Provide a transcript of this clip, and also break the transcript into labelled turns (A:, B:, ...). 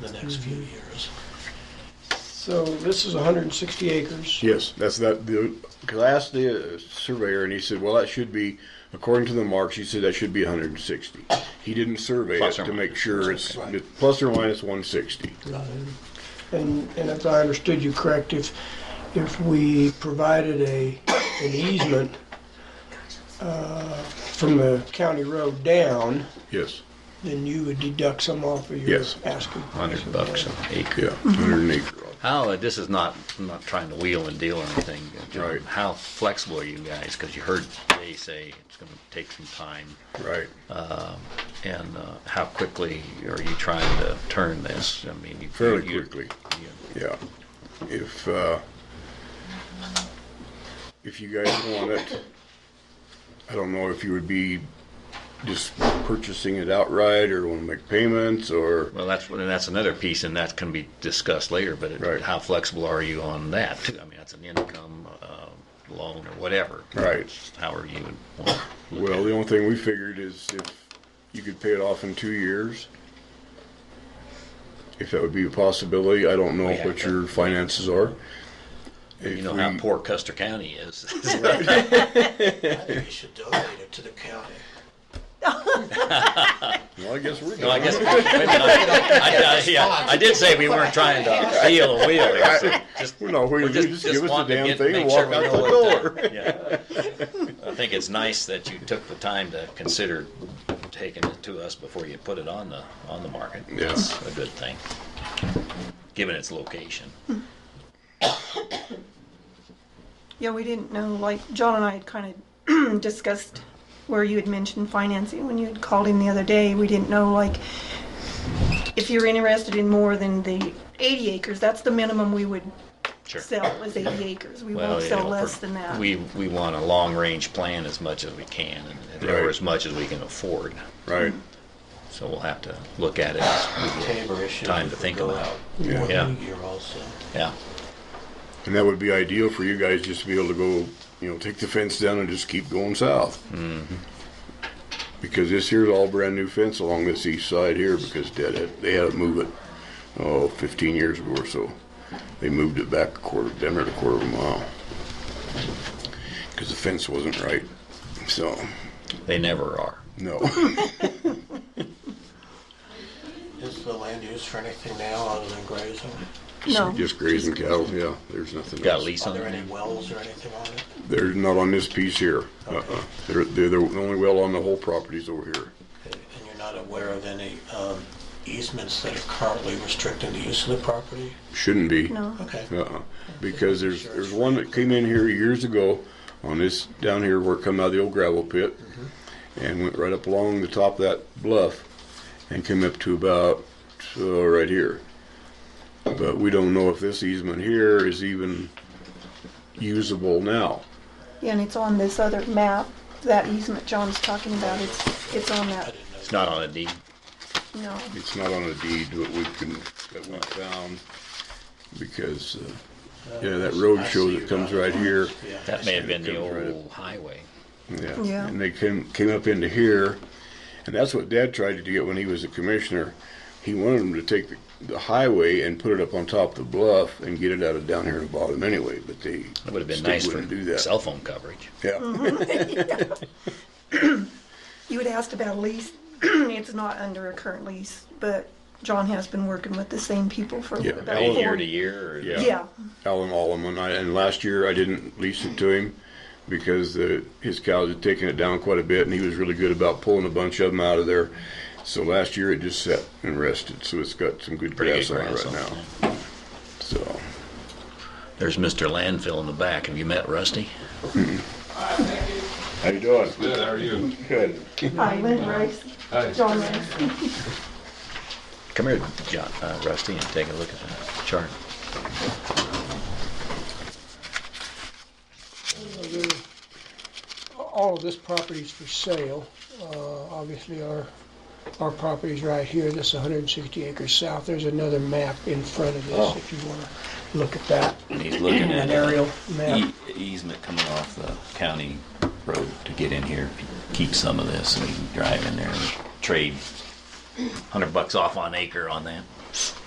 A: the next few
B: Mm-hmm.
A: years.
C: So this is 160 acres.
B: Yes, that's that. Because I asked the uh, surveyor, and he said, "Well, that should be according to the marks." He said that should be 160. He didn't survey
D: Plus
B: it
D: or
B: to
D: minus.
B: make sure it's
A: Right.
B: it's plus or minus 160.
C: And, and if I understood you correct, if, if we provided a, an easement uh, from the county road down,
B: Yes.
C: then you would deduct some off of your
B: Yes.
C: asking. price.
D: Hundred bucks an acre.
B: Yeah. 100 acre.
D: How, uh, this is not, I'm not trying to wheel and deal or anything. John.
B: Right.
D: How flexible are you guys? Because you heard they say it's gonna take some time.
B: Right.
D: And uh, how quickly are you trying to turn this? I mean, you.
B: Fairly
D: you-
B: quickly.
D: you-
B: Yeah. If uh, if you guys want it, I don't know if you would be just purchasing it outright, or want to make payments, or
D: Well, that's, and that's another piece, and that can be discussed later, but
B: Right.
D: it- how flexible are you on that? too? I mean, that's an income uh, loan or whatever.
B: Right.
D: How are you? wanna look
B: Well,
D: at
B: the
D: it?
B: only thing we figured is if you could pay it off in two years, if that would be a possibility. I don't know
D: Oh, Yeah.
B: what your finances are.
D: You
B: If
D: know how
B: we-
D: poor Custer County is.
A: I think you should donate it to the county.
B: Well, I guess we're.
D: No, I
B: done.
D: guess, wait a minute, I, I- yeah, I did say we weren't trying to deal a wheel here, so just.
B: We're not waiting.
D: we
B: Just, just give us the
D: wanted to
B: damn
D: get-
B: thing
D: make
B: and
D: sure
B: walk
D: we
B: out
D: know
B: the
D: what
B: door.
D: the- yeah. I think it's nice that you took the time to consider taking it to us before you put it on the, on the market.
B: Yeah.
D: That's a good thing, given its location.
E: Yeah, we didn't know, like, John and I had kind of discussed where you had mentioned financing when you had called him the other day. We didn't know, like, if you're interested in more than the 80 acres, that's the minimum we would
D: Sure.
E: sell, is 80 acres. We
D: Well,
E: won't
D: you
E: sell
D: know,
E: less
D: for-
E: than that.
D: We, we want a long-range plan as much as we can, and or
B: Right.
D: as much as we can afford,
B: Right.
D: so we'll have to look at it as we
A: Tabor issue.
D: Time to think about.
B: Yeah.
D: Yeah.
A: One year also.
D: Yeah,
B: And that would be ideal for you guys just to be able to go, you know, take the fence down and just keep going south. Because this here's all brand new fence along this east side here because Dad had, they had to move it, oh, 15 years ago or so. They moved it back a quarter, damn near a quarter of a mile. Because the fence wasn't right. So,
D: they never are.
B: no.
A: Is the land used for anything now other than grazing?
E: No.
B: Just grazing cattle, yeah. There's nothing
D: Got a
B: else.
D: lease
A: Are
D: on
A: there any
D: it?
A: wells or anything on it?
B: They're not on this piece here. Uh-uh. They're, they're the only well on the whole property's over here.
A: And you're not aware of any um, easements that are currently restricting the use of the property?
B: Shouldn't be.
E: No.
A: Okay.
B: Uh-uh. Because there's, there's one that came in here years ago on this, down here where it come out of the old gravel pit
A: Mm-hmm.
B: and went right up along the top of that bluff and came up to about, uh, right here. But we don't know if this easement here is even usable now.
E: Yeah, and it's on this other map, that easement John's talking about, it's, it's on
A: I
E: that,
A: didn't know.
D: It's not on a deed.
E: no.
B: It's not on a deed that we can, that we found because, uh, yeah, that road
A: I
B: show
A: see
B: that
A: you
B: comes
A: got it.
B: right here.
A: Yeah, I
D: That
A: see
D: may have
A: it.
D: been the
B: comes right
D: old highway.
B: Yeah.
E: Yeah.
B: And they came came up into here, and that's what Dad tried to get when he was a commissioner. He wanted them to take the, the highway and put it up on top of the bluff and get it out of down here in the bottom anyway. But they
D: That would have been
B: still
D: nice for
B: wouldn't do that.
D: cell phone coverage.
B: yeah,
E: You had asked about a lease. It's not under a current lease, but John has been working with the same people for
B: Yeah,
E: about
B: Alan-
E: four.
D: Year to year, or
B: Yeah.
E: Yeah,
B: Alan Allum and I. And last year I didn't lease it to him because the, his cows had taken it down quite a bit, and he was really good about pulling a bunch of them out of there. So last year it just sat and rested. So it's got some good
D: pretty
B: grass,
D: good grass
B: on
D: on
B: it right now.
D: it.
B: So
D: There's Mr. Landfill in the back. Have you met Rusty?
B: how you doing?
F: Good, how are you?
B: Good.
E: hi, Lynn Rice,
F: Hi.
E: John Rice.
D: Come here, John, uh, Rusty, and take a look at the chart.
C: All of this property's for sale. Uh, Obviously, our, our property's right here, this 160 acres south. There's another map in front of this,
G: Oh.
C: if you want to look at that,
G: And he's looking
C: an
G: at an
C: aerial map.
G: easement coming off the county road to get in here, keep some of this and drive in there and trade
D: Hundred bucks off on acre on that.